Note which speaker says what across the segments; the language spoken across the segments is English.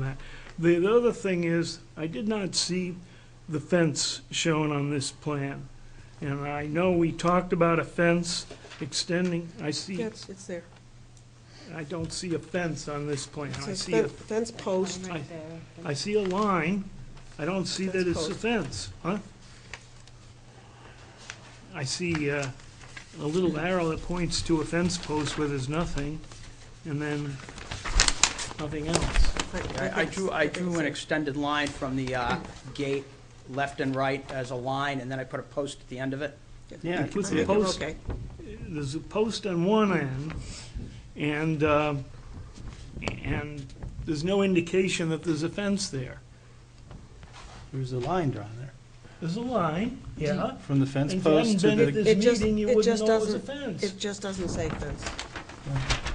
Speaker 1: that. The, the other thing is, I did not see the fence shown on this plan. And I know we talked about a fence extending, I see,
Speaker 2: Yes, it's there.
Speaker 1: I don't see a fence on this plan.
Speaker 2: It
Speaker 1: I
Speaker 2: says
Speaker 1: see, a
Speaker 2: fen- fence post.
Speaker 1: I- I see a line, I don't see that it's a fence, huh? I see uh, a little arrow that points to a fence post where there's nothing, and then nothing else.
Speaker 2: I-
Speaker 3: I I drew, I
Speaker 2: think
Speaker 3: drew
Speaker 2: so.
Speaker 3: an extended line from the uh, gate, left and right as a line, and then I put a post at the end of it.
Speaker 1: Yeah,
Speaker 2: I
Speaker 1: put
Speaker 2: think
Speaker 1: the
Speaker 2: we're
Speaker 1: post,
Speaker 2: okay.
Speaker 1: there's a post on one end, and, uh, and there's no indication that there's a fence there.
Speaker 4: There's a line drawn there,
Speaker 1: There's a line, yeah.
Speaker 4: from the fence
Speaker 1: And if you hadn't
Speaker 4: post to
Speaker 1: been at
Speaker 4: the,
Speaker 2: It
Speaker 1: this
Speaker 2: just-
Speaker 1: meeting, you
Speaker 2: it just
Speaker 1: wouldn't know it was a
Speaker 2: doesn't-
Speaker 1: fence.
Speaker 2: It just doesn't say fence.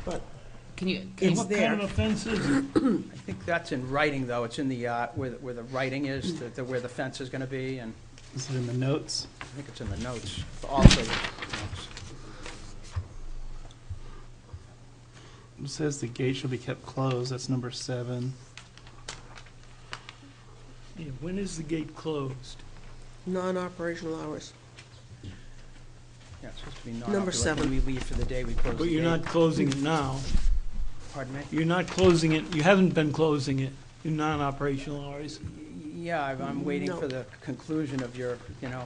Speaker 2: But
Speaker 5: Can you,
Speaker 2: it's
Speaker 1: What
Speaker 2: there.
Speaker 1: kind of a fence is it?
Speaker 3: I think that's in writing, though, it's in the, uh, where, the- where the writing is, the- the- where the fence is gonna be, and
Speaker 4: is it in the notes?
Speaker 3: I think it's in the notes, also the notes.
Speaker 4: It says the gate shall be kept closed, that's number seven.
Speaker 1: Yeah, When is the gate closed?
Speaker 2: Non-operational hours.
Speaker 3: Yeah, it's supposed to be not.
Speaker 2: Number
Speaker 3: up to, like, when We leave for the day, we close the
Speaker 1: But you're
Speaker 3: gate.
Speaker 1: not closing it now.
Speaker 3: Pardon me?
Speaker 1: You're not closing it, you haven't been closing it in non-operational hours.
Speaker 3: Yeah, I'm- I'm waiting
Speaker 2: No.
Speaker 3: for the conclusion of your, you know,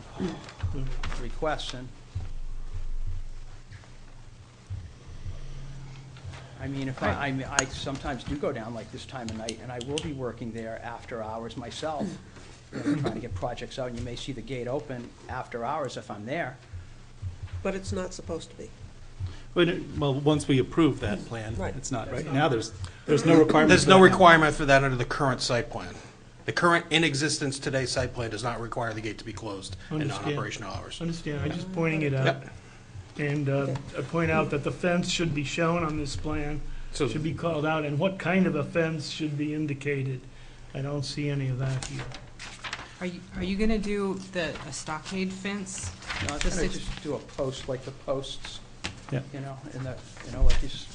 Speaker 3: requests, and... I mean, if I, I mean, I sometimes do go down like this time of night, and I will be working there after hours myself, you know, trying to get projects out, and you may see the gate open after hours if I'm there.
Speaker 2: But it's not supposed to be.
Speaker 4: Wait, it- well, once we approve that plan,
Speaker 2: Right.
Speaker 4: it's not, right now, there's, there's no requirement.
Speaker 6: There's
Speaker 4: for
Speaker 6: no
Speaker 4: that now.
Speaker 6: requirement for that under the current site plan. The current in existence today site plan does not require the gate to be closed in
Speaker 1: Understand.
Speaker 6: non-operational hours.
Speaker 1: Understand, I'm just pointing it out.
Speaker 6: Yep.
Speaker 1: And uh, I point out that the fence should be shown on this plan,
Speaker 6: So-
Speaker 1: should be called out, and what kind of a fence should be indicated. I don't see any of that here.
Speaker 5: are you, are you gonna do the, a stockade fence?
Speaker 3: You know, I'm
Speaker 5: This
Speaker 3: gonna
Speaker 5: is-
Speaker 3: just do a post, like the posts,
Speaker 4: Yeah.
Speaker 3: you know, in the, you know, like these,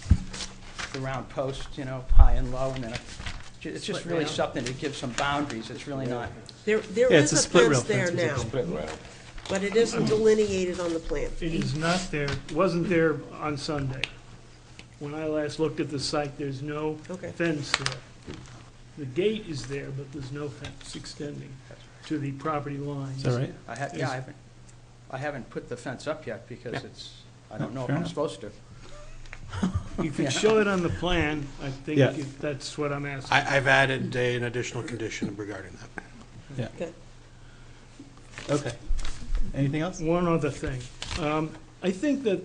Speaker 3: the round posts, you know, high and low, and then a- ju- it's just really something to give some boundaries, it's really not,
Speaker 2: There, there
Speaker 4: Yeah,
Speaker 2: is
Speaker 4: it's a
Speaker 2: a
Speaker 4: split rail
Speaker 2: fence there
Speaker 4: fence,
Speaker 2: now,
Speaker 4: it's a
Speaker 2: but it isn't delineated on the plan.
Speaker 1: It is not there, wasn't there on Sunday. When I last looked at the site, there's no
Speaker 2: Okay.
Speaker 1: fence there. The gate is there, but there's no fence extending to the property line.
Speaker 4: Is that right?
Speaker 3: I have, yeah, I haven't, I haven't put the fence up yet, because it's, I don't know if
Speaker 4: Fair
Speaker 3: I'm
Speaker 4: enough.
Speaker 3: supposed to.
Speaker 1: If you show it on the plan, I think
Speaker 4: Yeah.
Speaker 1: if that's what I'm asking.
Speaker 6: I, I've added a- an additional condition regarding that.
Speaker 4: Okay. Anything else?
Speaker 1: One other thing. Um, I think that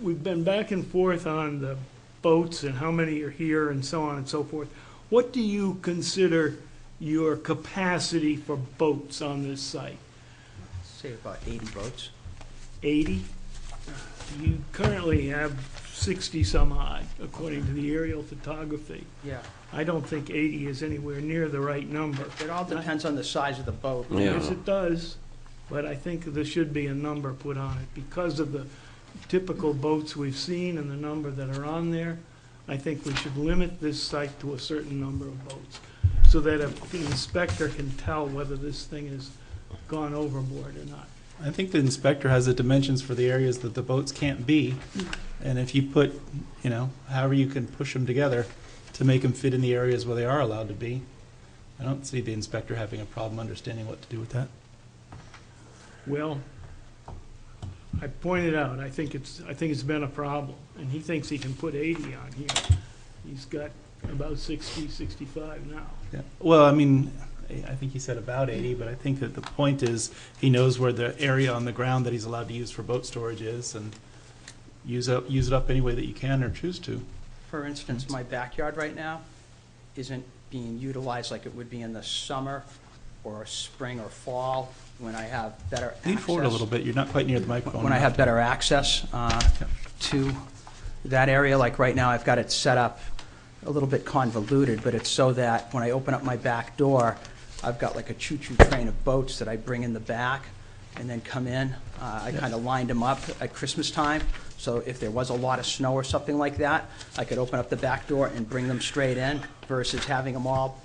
Speaker 1: we've been back and forth on the boats and how many are here and so on and so forth. What do you consider your capacity for boats on this site?
Speaker 3: Say about eighty votes.
Speaker 1: 80? You currently have 60-some odd, according to the aerial photography.
Speaker 3: Yeah,
Speaker 1: I don't think 80 is anywhere near the right number.
Speaker 3: it all depends on the size of the boat.
Speaker 1: Yes, it does, but I think there should be a number put on it. Because of the typical boats we've seen and the number that are on there, I think we should limit this site to a certain number of boats, so that a- the inspector can tell whether this thing has gone overboard or not.
Speaker 4: I think the inspector has the dimensions for the areas that the boats can't be, and if you put, you know, however you can push them together to make them fit in the areas where they are allowed to be, I don't see the inspector having a problem understanding what to do with that.
Speaker 1: Well, I pointed out, I think it's, I think it's been a problem, and he thinks he can put 80 on here. He's got about 60, 65 now.
Speaker 4: Yeah. Well, I mean, I I think he said about 80, but I think that the point is, he knows where the area on the ground that he's allowed to use for boat storage is, and use up, use it up any way that you can or choose to.
Speaker 3: For instance, my backyard right now isn't being utilized like it would be in the summer or spring or fall when I have better access.
Speaker 4: Lean forward a little bit, you're not quite near the microphone.
Speaker 3: When I have better access uh, to that area, like right now, I've got it set up a little bit convoluted, but it's so that when I open up my back door, I've got like a choo-choo train of boats that I bring in the back and then come in. Uh, I kind of lined them up at Christmas time, so if there was a lot of snow or something like that, I could open up the back door and bring them straight in versus having them all